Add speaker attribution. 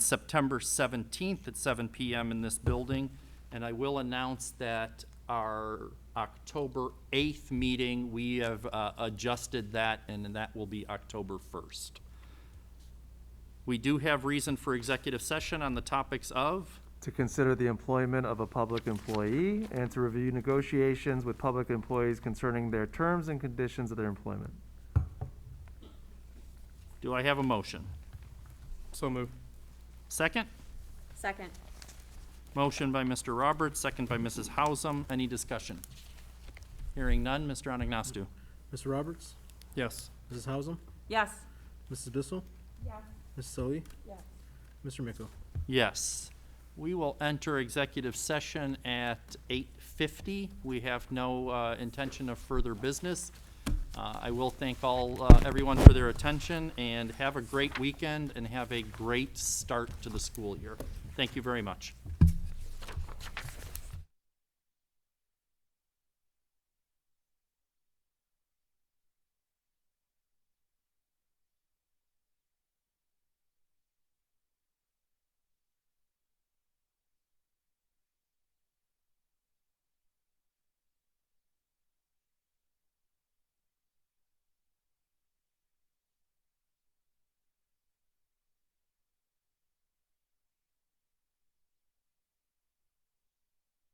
Speaker 1: September 17th at 7 PM in this building. And I will announce that our October 8th meeting, we have uh, adjusted that, and then that will be October 1st. We do have reason for executive session on the topics of,
Speaker 2: to consider the employment of a public employee and to review negotiations with public employees concerning their terms and conditions of their employment.
Speaker 1: do I have a motion?
Speaker 3: So moved.
Speaker 1: Second?
Speaker 4: Second.
Speaker 1: Motion by Mr. Roberts, second by Mrs. Hausum. Any discussion? Hearing none. Mr. Anagnostou.
Speaker 5: Mr. Roberts?
Speaker 3: Yes.
Speaker 5: Mrs. Hausum?
Speaker 4: Yes.
Speaker 5: Mrs. Bissell?
Speaker 4: Yes.
Speaker 5: Mrs. Sully?
Speaker 4: Yes.
Speaker 5: Mr. Miko?
Speaker 1: Yes. We will enter executive session at 8:50. We have no uh, intention of further business. Uh, I will thank all, uh, everyone for their attention, and have a great weekend, and have a great start to the school year. Thank you very much.